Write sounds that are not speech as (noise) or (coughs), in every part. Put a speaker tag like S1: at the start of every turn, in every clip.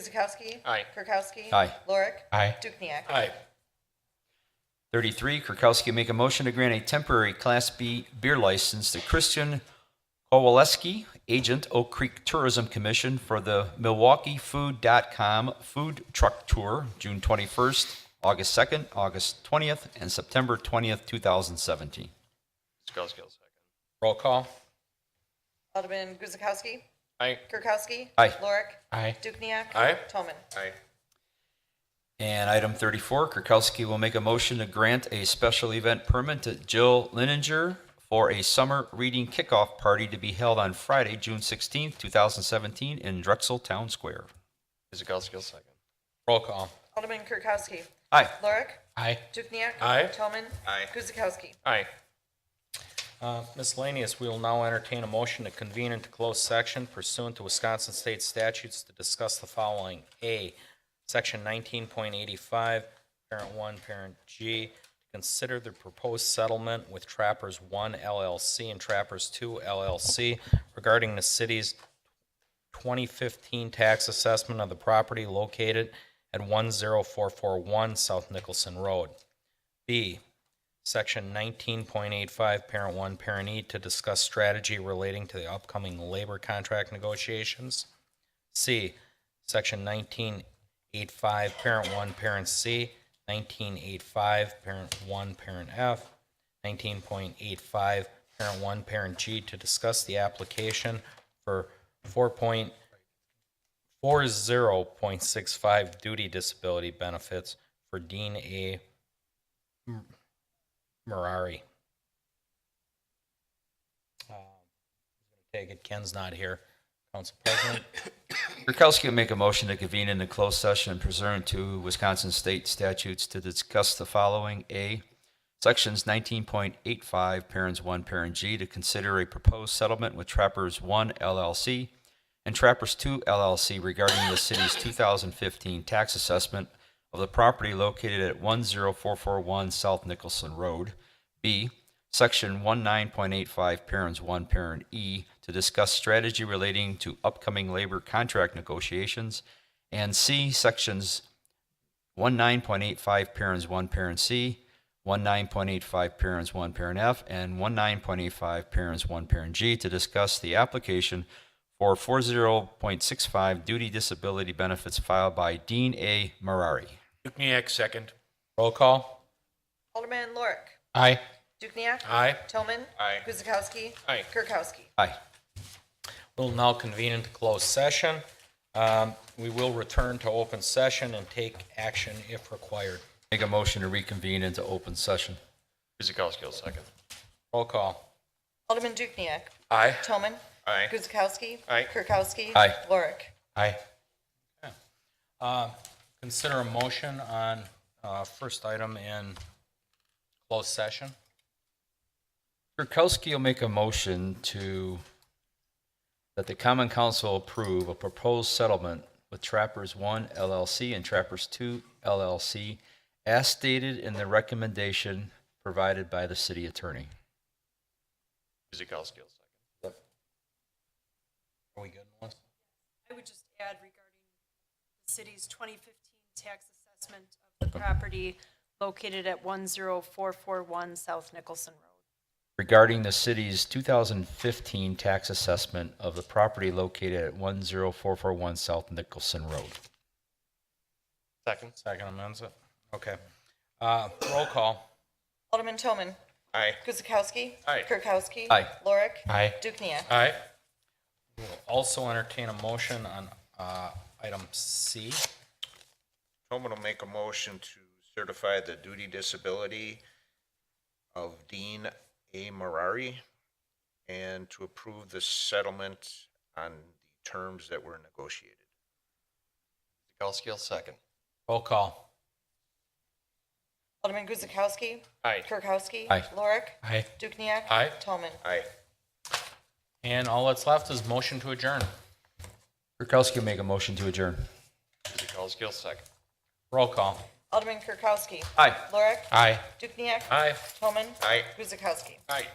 S1: Guzekowski.
S2: Aye.
S1: Kirkowski.
S3: Aye.
S1: Lorick.
S4: Aye.
S1: Dukenyak.
S2: Aye.
S3: 33, Kirkowski make a motion to grant a temporary Class B beer license to Christian Kowaleski, agent Oak Creek Tourism Commission for the MilwaukeeFood.com Food Truck Tour, June 21st, August 2nd, August 20th, and September 20th, 2017.
S2: Scott Skill second.
S4: Roll call.
S1: Alderman Guzekowski.
S2: Aye.
S1: Kirkowski.
S3: Aye.
S1: Lorick.
S4: Aye.
S1: Dukenyak.
S2: Aye.
S1: Toman.
S2: Aye.
S3: And item 34, Kirkowski will make a motion to grant a special event permit to Jill Lininger for a summer reading kickoff party to be held on Friday, June 16th, 2017 in Drexel Town Square.
S2: Scott Skill second.
S4: Roll call.
S1: Alderman Kirkowski.
S3: Aye.
S1: Lorick.
S4: Aye.
S1: Dukenyak.
S2: Aye.
S1: Toman.
S2: Aye.
S1: Guzekowski.
S2: Aye.
S4: Uh, Miscellaneous, we will now entertain a motion to convene into closed section pursuant to Wisconsin State statutes to discuss the following. A, Section 19.85, Parent 1, Parent G, to consider the proposed settlement with Trappers 1 LLC and Trappers 2 LLC regarding the city's 2015 tax assessment of the property located at 10441 South Nicholson Road. B, Section 19.85, Parent 1, Parent E, to discuss strategy relating to the upcoming labor contract negotiations. C, Section 19.85, Parent 1, Parent C, 19.85, Parent 1, Parent F, 19.85, Parent 1, Parent G, to discuss the application for 4.40.65 duty disability benefits for Dean A. Merari. Uh, Take it, Ken's not here. Council President, (coughs)
S3: Kirkowski will make a motion to convene in the closed session pursuant to Wisconsin State statutes to discuss the following. A, Sections 19.85, Parents 1, Parent G, to consider a proposed settlement with Trappers 1 LLC and Trappers 2 LLC regarding the city's 2015 tax assessment of the property located at 10441 South Nicholson Road. B, Section 19.85, Parents 1, Parent E, to discuss strategy relating to upcoming labor contract negotiations. And C, Sections 19.85, Parents 1, Parent C, 19.85, Parents 1, Parent F, and 19.85, Parents 1, Parent G, to discuss the application for 40.65 duty disability benefits filed by Dean A. Marari.
S2: Dukenyak second.
S4: roll call.
S1: Alderman Lorik.
S4: Aye.
S1: Dukenyak.
S2: Aye.
S1: Toman.
S2: Aye.
S1: Guzekowski.
S2: Aye.
S1: Kirkowski.
S3: Aye.
S4: We'll now convene into closed session. Um, We will return to open session and take action if required.
S3: Make a motion to reconvene into open session.
S2: Scott Skill second.
S4: Roll call.
S1: Alderman Dukenyak.
S2: Aye.
S1: Toman.
S2: Aye.
S1: Guzekowski.
S2: Aye.
S1: Kirkowski.
S3: Aye.
S1: Lorik.
S4: Aye. Consider a motion on uh, first item in closed session.
S3: Kirkowski will make a motion to, that the common council approve a proposed settlement with Trappers One LLC and Trappers Two LLC as stated in the recommendation provided by the city attorney.
S2: Scott Skill second.
S4: Are we good, Melissa?
S5: I would just add regarding the city's 2015 tax assessment of the property located at 10441 South Nicholson Road.
S3: regarding the city's 2015 tax assessment of the property located at 10441 South Nicholson Road.
S2: Second.
S4: Second amends it. Okay. Uh, Roll call.
S1: Alderman Toman.
S2: Aye.
S1: Guzekowski.
S2: Aye.
S1: Kirkowski.
S3: Aye.
S1: Lorik.
S4: Aye.
S1: Dukenyak.
S2: Aye.
S4: Also entertain a motion on uh, item C.
S6: Tobin will make a motion to certify the duty disability of Dean A. Marari and to approve the settlement on the terms that were negotiated.
S2: Scott Skill second.
S4: Roll call.
S1: Alderman Guzekowski.
S2: Aye.
S1: Kirkowski.
S3: Aye.
S1: Lorik.
S4: Aye.
S1: Dukenyak.
S2: Aye.
S1: Toman.
S6: Aye.
S4: And all that's left is motion to adjourn.
S3: Kirkowski will make a motion to adjourn.
S2: Scott Skill second.
S4: Roll call.
S1: Alderman Kirkowski.
S3: Aye.
S1: Lorik.
S4: Aye.
S1: Dukenyak.
S4: Aye.
S1: Toman.
S6: Aye.
S1: Guzekowski.
S2: Aye.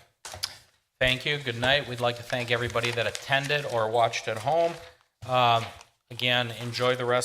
S4: Thank you. Good night. We'd like to thank everybody that attended or watched at home. Um, Again, enjoy the rest